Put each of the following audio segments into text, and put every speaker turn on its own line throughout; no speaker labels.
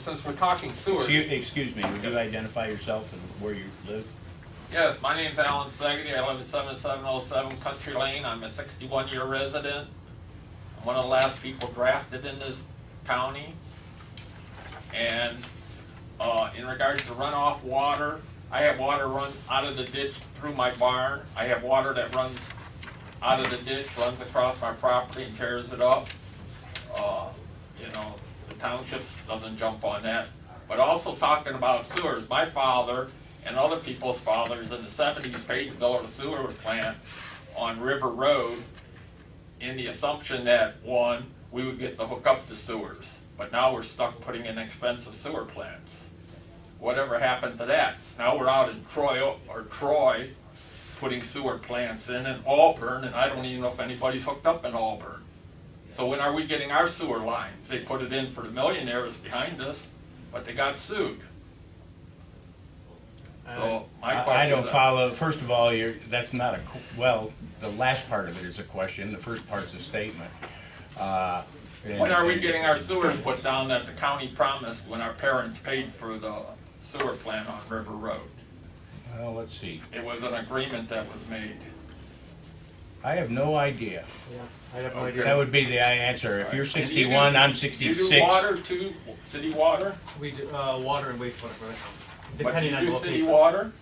Since we're talking sewer,
Excuse, excuse me, would you identify yourself and where you live?
yes, my name's Alan Segedy. I live at 7707 Country Lane. I'm a 61-year resident. I'm one of the last people drafted in this county. And uh, in regards to runoff water, I have water run out of the ditch through my barn. I have water that runs out of the ditch, runs across my property and tears it up. Uh, You know, the township doesn't jump on that. But also talking about sewers, my father and other people's fathers in the seventies paid to build a sewer plant on River Road in the assumption that, one, we would get to hook up the sewers. But now we're stuck putting in expensive sewer plants. Whatever happened to that? Now we're out in Troy, or Troy, putting sewer plants in, in Auburn, and I don't even know if anybody's hooked up in Auburn. So when are we getting our sewer lines? They put it in for the millionaires behind us, but they got sued. So my question.
I I don't
is-
follow, first of all, you're, that's not a, qu- well, the last part of it is a question, the first part's a statement. Uh, and-
When are we getting our sewers put down that the county promised when our parents paid for the sewer plant on River Road?
Well, let's see,
It was an agreement that was made.
I have no idea.
Yeah, I have no
Okay.
idea.
That would be the answer, if you're
And you do-
sixty-one, I'm
You do
sixty-six.
water too, city water?
We do, uh, water and wastewater for the county,
But
depending
you
on the
do city
location.
water?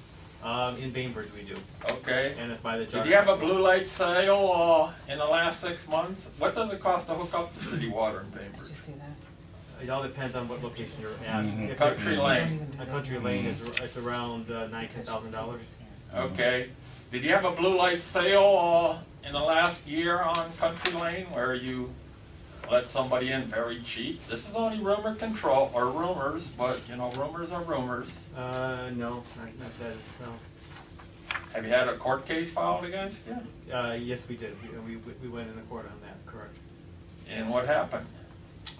Um, in Bainbridge we do,
Okay.
and if by the jar.
Did you have a blue light sale, uh, in the last six months? What does it cost to hook up the city water in
Did
Bainbridge?
you see that?
It all depends on what location you're at.
Mhm.
If
Mm-hmm. Country
you're-
Don't
Lane,
even do
A
that.
country lane is, ar- it's around uh, nine, ten thousand dollars.
Mm-hmm. okay. Did you have a blue light sale, uh, in the last year on Country Lane where you let somebody in very cheap? This is only rumor control, or rumors, but, you know, rumors are rumors.
Uh, no, not, not that is, no.
Have you had a court case filed against you?
Uh, yes, we did, we, we, we went into court on that, correct.
And what happened?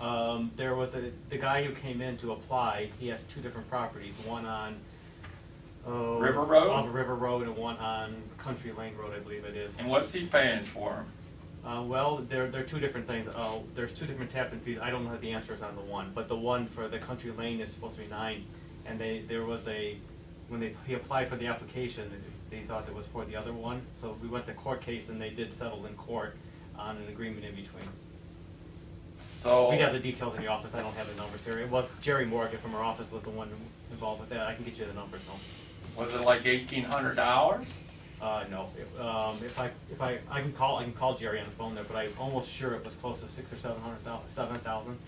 Um, there was a, the guy who came in to apply, he has two different properties, one on, oh.
River Road?
On River Road and one on Country Lane Road, I believe it is.
And what's he paying for them?
Uh, well, there, there are two different things. Oh, there's two different tap and fees. I don't know the answers on the one, but the one for the country lane is supposed to be nine, and they, there was a, when they, he applied for the application, they thought it was for the other one, so we went to court case and they did settle in court on an agreement in between.
So,
We got the details in the office. I don't have the numbers here. It was Jerry Morgan from our office was the one involved with that. I can get you the numbers though.
was it like eighteen hundred dollars?
Uh, no, if, um, if I, if I, I can call, I can call Jerry on the phone there, but I'm almost sure it was close to six or seven hundred thou, seven thousand.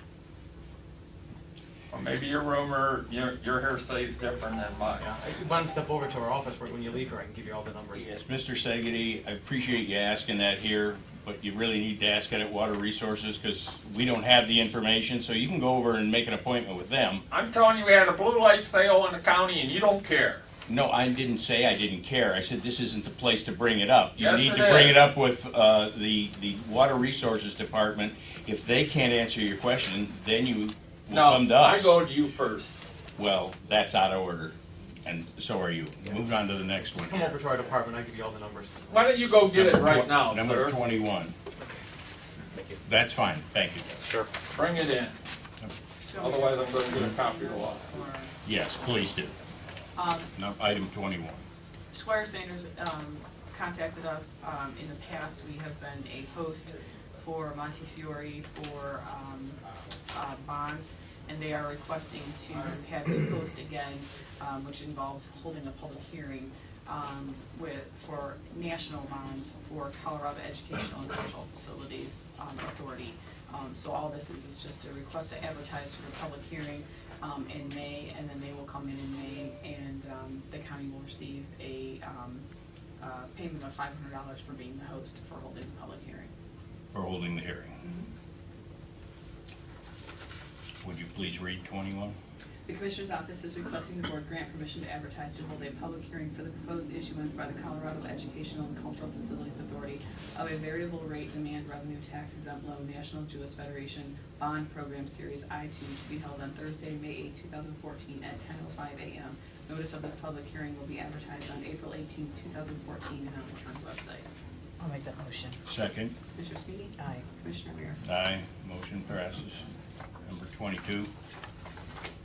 Or maybe your rumor, your, your hearsay is different than mine.
Yeah, I- why don't you step over to our office when you leave here, I can give you all the numbers.
Yes, Mr. Segedy, I appreciate you asking that here, but you really need to ask it at Water Resources, because we don't have the information, so you can go over and make an appointment with them.
I'm telling you, we had a blue light sale in the county and you don't care.
No, I didn't say I didn't care. I said this isn't the place to bring it up. You
Yes,
need
it
to bring
is.
it up with uh, the the Water Resources Department. If they can't answer your question, then you will
No,
come to us.
I go to you first.
Well, that's out of order, and so are you. Move on to the next one.
Come over to our department, I'll give you all the numbers.
Why don't you go get it
Number
right
tw-
now,
Number
sir?
twenty-one. That's fine. Thank you.
Bring it in. Otherwise, I'm gonna get a copy of the law.
Yes, please do.
Um,
No, item twenty-one.
Squire Sanders, um, contacted us, um, in the past, we have been a host for Montefiore for, um, uh, bonds, and they are requesting to have a host again, um, which involves holding a public hearing, um, with, for national bonds for Colorado Educational and Cultural Facilities, um, Authority. Um, so all this is, is just a request to advertise for the public hearing, um, in May, and then they will come in in May, and, um, the county will receive a, um, uh, payment of five hundred dollars for being the host for holding the public hearing.
We're holding the hearing. Would you please read twenty-one?
The Commissioner's Office is requesting the Board grant permission to advertise to hold a public hearing for the proposed issuance by the Colorado Educational and Cultural Facilities Authority of a variable rate demand revenue tax exempt loan National Jewish Federation Bond Program Series I two to be held on Thursday, May 8, thousand fourteen at ten oh five AM. Notice of this public hearing will be advertised on April 18, thousand fourteen and on the county website.
I'll make that motion.
Second.
Commissioner Speaking,
Aye.
Commissioner Rea.
Aye. Motion passes. Number twenty-two.